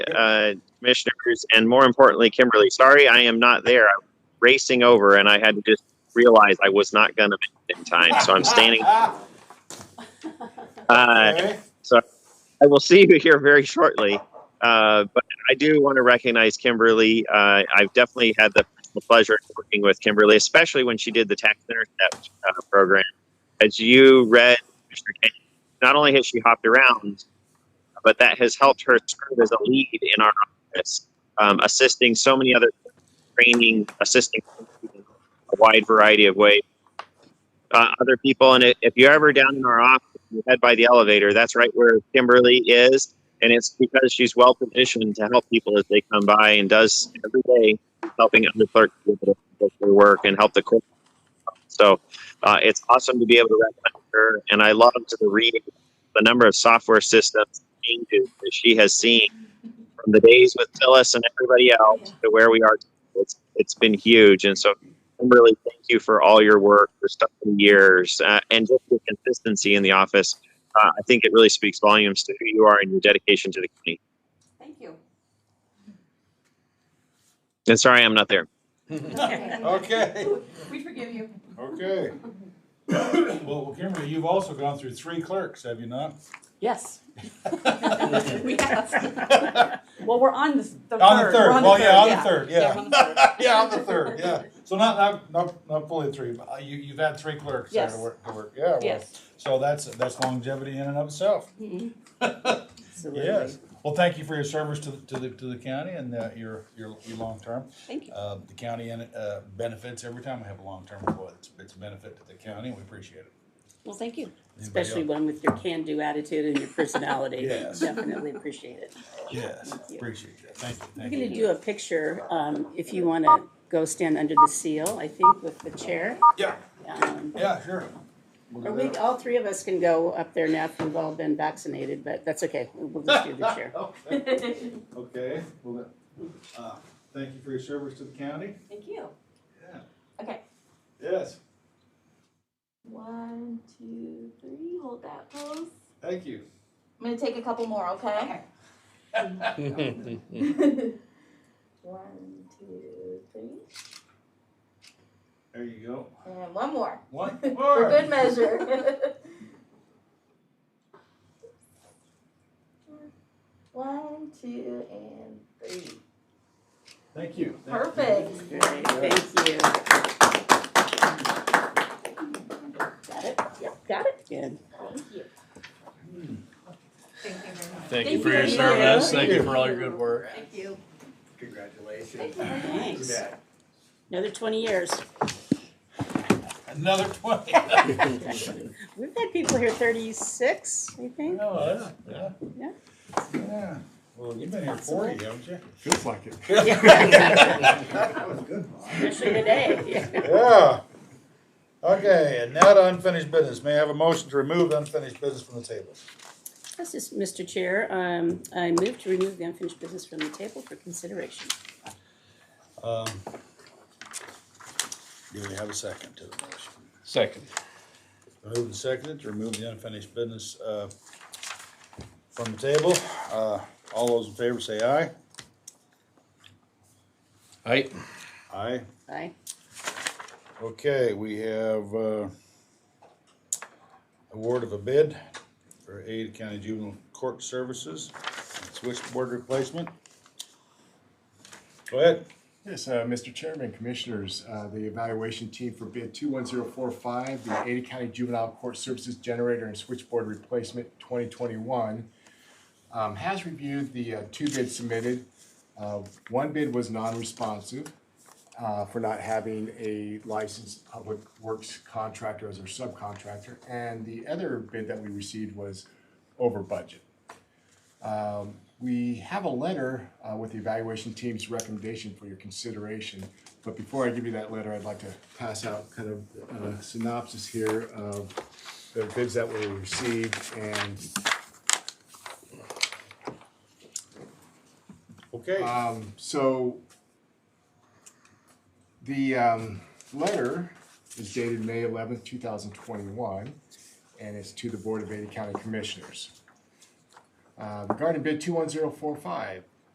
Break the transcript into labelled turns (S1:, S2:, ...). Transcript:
S1: uh, commissioners, and more importantly, Kimberly. Sorry, I am not there. I'm racing over, and I had to just realize I was not going to make it in time. So I'm standing.
S2: Ah,
S1: Uh,
S2: Okay.
S1: I will see you here very shortly. Uh, but I do want to recognize Kimberly. Uh, I've definitely had the pleasure of working with Kimberly, especially when she did the tax intercept uh, program. As you read, Mr. Kane, not only has she hopped around, but that has helped her serve as a lead in our office, um, assisting so many other training, assisting in a wide variety of ways. Uh, other people, and if you're ever down in our office, you head by the elevator. That's right where Kimberly is. And it's because she's well positioned to help people as they come by and does every day helping other clerks do their do their work and help the court. So uh, it's awesome to be able to recommend her. And I loved the reading, the number of software systems changes that she has seen from the days with Phyllis and everybody else to where we are. It's, it's been huge. And so Kimberly, thank you for all your work for so many years uh, and just your consistency in the office. Uh, I think it really speaks volumes to who you are and your dedication to the community.
S3: Thank you.
S1: And sorry, I'm not there.
S2: Okay,
S3: We forgive you.
S2: okay. Well, Kimberly, you've also gone through three clerks, have you not?
S3: Yes. We have. Well, we're on the, the third.
S2: On the
S3: We're
S2: third, well, yeah, on the third,
S3: Yeah,
S2: yeah.
S3: we're on the third.
S2: Yeah, on the third, yeah. So not, not, not, not fully three, but uh, you, you've had three clerks there to
S3: Yes.
S2: work, to work, yeah. well,
S3: Yes.
S2: So that's, that's longevity in and of itself,
S3: Mhm.
S2: yes. Well, thank you for your service to, the- to the, to the county and uh, your, your, your long term.
S3: Thank you.
S2: Uh, the county and, uh, benefits, every time we have a long term employee, it's, it's a benefit to the county, and we appreciate it.
S3: Well, thank you.
S2: Anybody else?
S4: Especially one with your can-do attitude and your personality.
S2: Yes.
S4: Definitely appreciate it.
S2: Yes,
S4: you.
S2: appreciate that, thank you,
S4: We're
S2: thank you.
S4: gonna do a picture, um, if you wanna go stand under the seal, I think, with the chair.
S2: Yeah,
S4: Um,
S2: yeah, sure. We'll
S4: Or
S2: do
S4: we,
S2: that.
S4: all three of us can go up there now if we've all been vaccinated, but that's okay, we'll just do the chair.
S2: Okay, well, uh, thank you for your service to the county.
S3: Thank you.
S2: Yeah.
S3: Okay.
S2: Yes,
S3: One, two, three, hold that close.
S2: thank you.
S3: I'm gonna take a couple more, okay? One, two, three,
S2: There you go.
S3: and one more.
S2: One
S3: For
S2: more.
S3: good measure. One, two, and three.
S2: Thank you. Thank you.
S3: Perfect.
S4: Great, thank you. Got it? Yep, got it. Good.
S3: Thank you.
S5: Thank you very much.
S6: Thank
S3: Thank
S6: you for
S3: you.
S6: your service.
S2: Thank
S6: Thank you
S2: you.
S6: for all your good work.
S5: Thank you.
S7: Congratulations.
S4: Thanks. Another twenty years.
S2: Another twenty.
S4: We've had people here thirty-six, I think.
S2: No, Oh, yeah.
S4: Yeah.
S2: Yeah. Well, you've been here forty, haven't you?
S7: Feels like it. That was good, Bob.
S4: Especially today, yeah.
S2: Yeah. Okay, and now to unfinished business. May I have a motion to remove unfinished business from the table?
S4: This is, Mr. Chair, um, I move to remove the unfinished business from the table for consideration.
S2: Um, Do we have a second to the motion?
S6: Second.
S2: Moved and seconded to remove the unfinished business uh, from the table. Uh, All those in favor say aye.
S6: Aye.
S2: Aye.
S4: Aye.
S2: Okay, we have uh, award of a bid for Ada County Juvenile Court Services, switchboard replacement. Go ahead.
S7: Yes, uh, Mr. Chairman, Commissioners, uh, the evaluation team for bid 21045, the Ada County Juvenile Court Services Generator and Switchboard Replacement 2021, um, has reviewed the uh, two bids submitted. Uh, One bid was non-responsive uh, for not having a licensed public works contractor as our subcontractor, and the other bid that we received was over budget. We have a letter uh, with the evaluation team's recommendation for your consideration. But before I give you that letter, I'd like to pass out kind of a synopsis here of the bids that were received and
S2: Okay.
S7: um, so the um, letter is dated May eleventh, two thousand twenty-one, and it's to the Board of Ada County Commissioners. Uh, regarding bid two one zero four five,